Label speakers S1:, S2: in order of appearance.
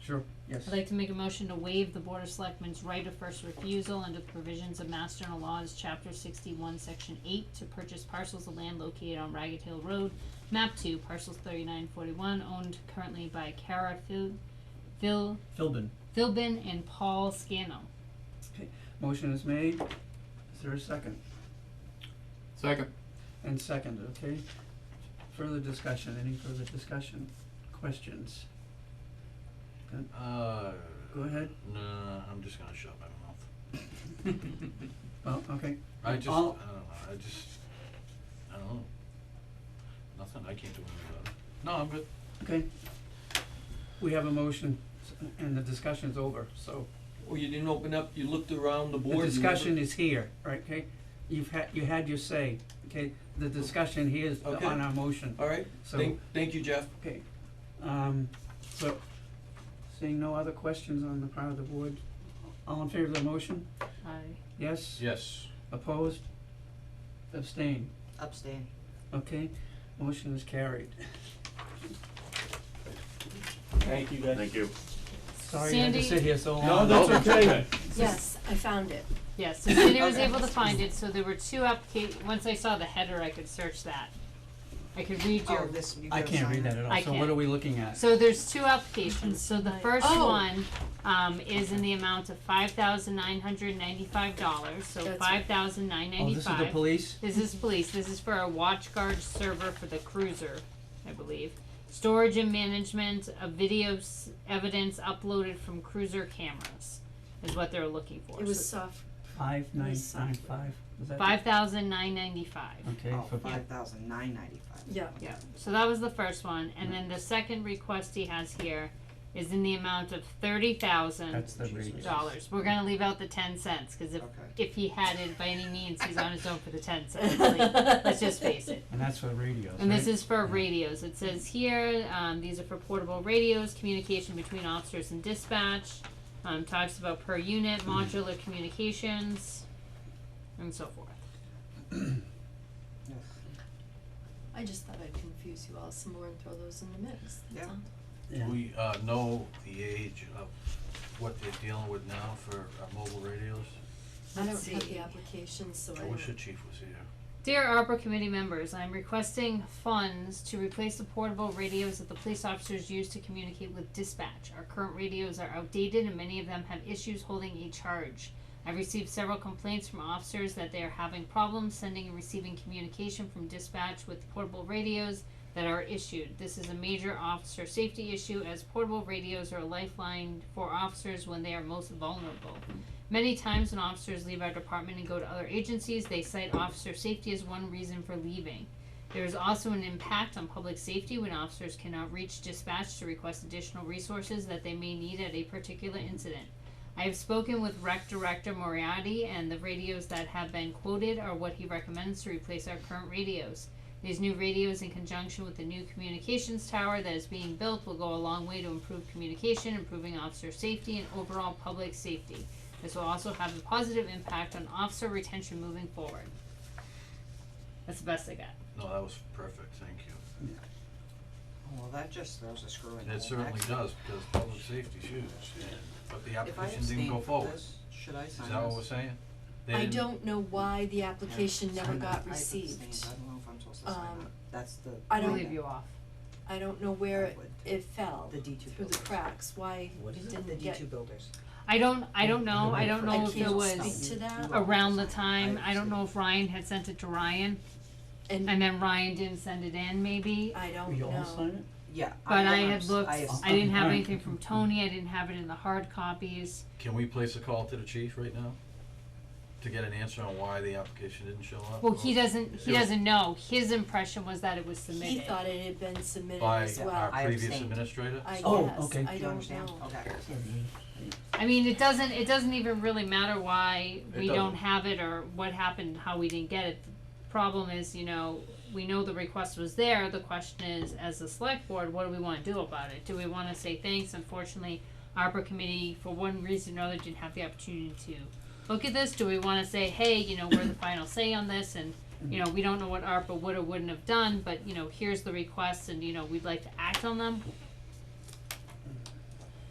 S1: Sure, yes.
S2: I'd like to make a motion to waive the Board of Selectmen's right of first refusal under the provisions of Master and Laws, Chapter sixty-one, Section eight, to purchase parcels of land located on Ragged Hill Road, map two, parcels thirty-nine forty-one, owned currently by Kara Phil, Phil,
S1: Philbin.
S2: Philbin and Paul Scano.
S1: Motion is made. Is there a second?
S3: Second.
S1: And second, okay. Further discussion, any further discussion? Questions?
S3: Uh,
S1: Go ahead.
S3: nah, I'm just gonna shut my mouth.
S1: Well, okay.
S3: I just, I don't
S1: All-
S3: know, I just, I don't know. Nothing, I can't do anything about it. No, I'm good.
S1: Okay. We have a motion s- and the discussion's over, so
S4: Well, you didn't open up, you looked around the
S1: the
S4: board. you
S1: discussion is here, right, okay? You've had, you had your say, okay? The discussion here is
S4: Okay.
S1: on our motion,
S4: never- All right,
S1: so,
S4: thank, thank you, Jeff.
S1: okay. Um, so, seeing no other questions on the part of the board, all in favor of the motion?
S2: Aye.
S1: Yes?
S3: Yes.
S1: Opposed? Abstained,
S5: Abstain.
S1: okay? Motion is carried.
S4: Thank you, guys.
S6: Thank you.
S1: Sorry you had to
S2: Sandy?
S1: sit here so long.
S4: No, that's
S6: Nope.
S4: okay.
S7: Yes, I found it.
S2: Yes, so Cindy was
S7: Okay.
S2: able to find it, so there were two applica- once I saw the header, I could search that. I could read your,
S5: Oh, this, you
S1: I
S5: gotta
S1: can't read
S5: sign
S1: that
S5: it.
S1: at
S2: I
S1: all, so what
S2: can't.
S1: are we looking at?
S2: so there's two applications, so the first
S7: Oh.
S2: one, um, is in the amount of five thousand nine hundred ninety-five dollars, so
S7: That's right.
S2: five thousand nine
S1: Oh, this
S2: ninety-five.
S1: is the police?
S2: This is police, this is for a watch guard server for the cruiser, I believe. Storage and management of videos, evidence uploaded from cruiser cameras is what they're looking for.
S7: It was soft.
S1: Five nine
S7: Yes.
S1: nine five, was that? it?
S2: Five thousand nine ninety-five.
S1: Okay,
S5: Oh,
S1: for,
S5: five thousand nine ninety-five.
S7: Yeah.
S2: Yeah, so that was the first one, and then the second request he has here is in the amount of thirty thousand
S1: that's the radius.
S2: dollars. We're gonna leave out the ten cents, cause if,
S5: Okay.
S2: if he had it by any means, he's on his own for the ten cents, like, let's just face it.
S1: And that's for radios,
S2: And this
S1: right?
S2: is for radios, it says here, um, these are for portable radios, communication between officers and dispatch, um, talks about per unit, modular communications, and so forth.
S5: Yes.
S7: I just thought I'd confuse you all some more and throw those in the mix. That's
S5: Yeah.
S7: all.
S1: Yeah.
S3: We, uh, know the age of what they're dealing with now for our mobile radios.
S7: I don't
S5: Let's
S7: have
S5: see.
S7: the application, so I
S3: I wish the
S7: don't.
S3: chief was here.
S2: Dear ARPA committee members, I'm requesting funds to replace the portable radios that the police officers use to communicate with dispatch. Our current radios are outdated and many of them have issues holding a charge. I've received several complaints from officers that they are having problems sending and receiving communication from dispatch with portable radios that are issued. This is a major officer safety issue as portable radios are a lifeline for officers when they are most vulnerable. Many times when officers leave our department and go to other agencies, they cite officer safety as one reason for leaving. There is also an impact on public safety when officers cannot reach dispatch to request additional resources that they may need at a particular incident. I have spoken with Rec Director Moriarty, and the radios that have been quoted are what he recommends to replace our current radios. These new radios, in conjunction with the new communications tower that is being built, will go a long way to improve communication, improving officer safety, and overall public safety. This will also have a positive impact on officer retention moving forward. That's the best I got.
S3: No, that was perfect, thank you.
S5: Oh, Well, that just throws a screw in the
S3: It
S5: whole
S3: certainly
S5: next.
S3: does, because public safety's huge, and, but the
S5: If I
S3: application didn't go
S5: abstain from
S3: forward.
S5: this, should I sign
S3: Is that what we're
S5: this?
S3: saying? They
S7: I
S3: didn't-
S7: don't know why the application never
S1: Sign
S7: got
S5: I abstained.
S7: received.
S5: I don't know if I'm supposed to sign
S7: Um,
S5: that. That's the.
S7: I don't-
S2: will leave you off.
S7: I don't know where
S5: I
S7: it,
S5: would.
S7: it fell
S5: The D two
S7: through the
S5: builders.
S7: cracks, why
S1: What
S7: it
S1: is
S5: The
S7: didn't
S5: D
S7: get,
S5: two builders.
S2: I don't, I don't know, I don't
S7: I
S2: know if it
S7: can't
S2: was
S7: speak to that.
S2: around the time, I don't know if Ryan had sent it to Ryan,
S7: and
S2: and then Ryan didn't send it in maybe.
S7: I
S1: Will
S7: don't
S1: you all
S7: know.
S1: sign it?
S5: Yeah.
S2: But I
S5: am
S2: had
S5: abs-
S2: looked,
S5: I abstained.
S2: I didn't have
S1: Alright.
S2: anything from Tony, I didn't have it in the hard copies.
S3: Can we place a call to the chief right now? To get an answer on why the application didn't show up?
S2: Well, he
S3: Or
S2: doesn't, he
S3: Yeah.
S2: doesn't know, his impression was that it was
S7: He
S2: submitted.
S7: thought it had been submitted
S3: By
S7: as
S3: our
S7: well.
S5: I
S3: previous
S5: abstained.
S3: administrator?
S7: I
S1: Oh,
S7: guess,
S1: okay.
S7: I
S5: Do you
S7: don't
S5: understand?
S7: know.
S5: Okay.
S2: I mean, it doesn't, it doesn't even really matter why
S3: It
S2: we don't
S3: doesn't.
S2: have it or what happened, how we didn't get it. The Problem is, you know, we know the request was there, the question is, as the select board, what do we wanna do about it? Do we wanna say thanks, unfortunately, ARPA committee, for one reason or another, didn't have the opportunity to look at this, do we wanna say, hey, you know, we're the final say on this, and, you know, we don't know what ARPA would or wouldn't have done, but, you know, here's the request, and, you know, we'd like to act on them?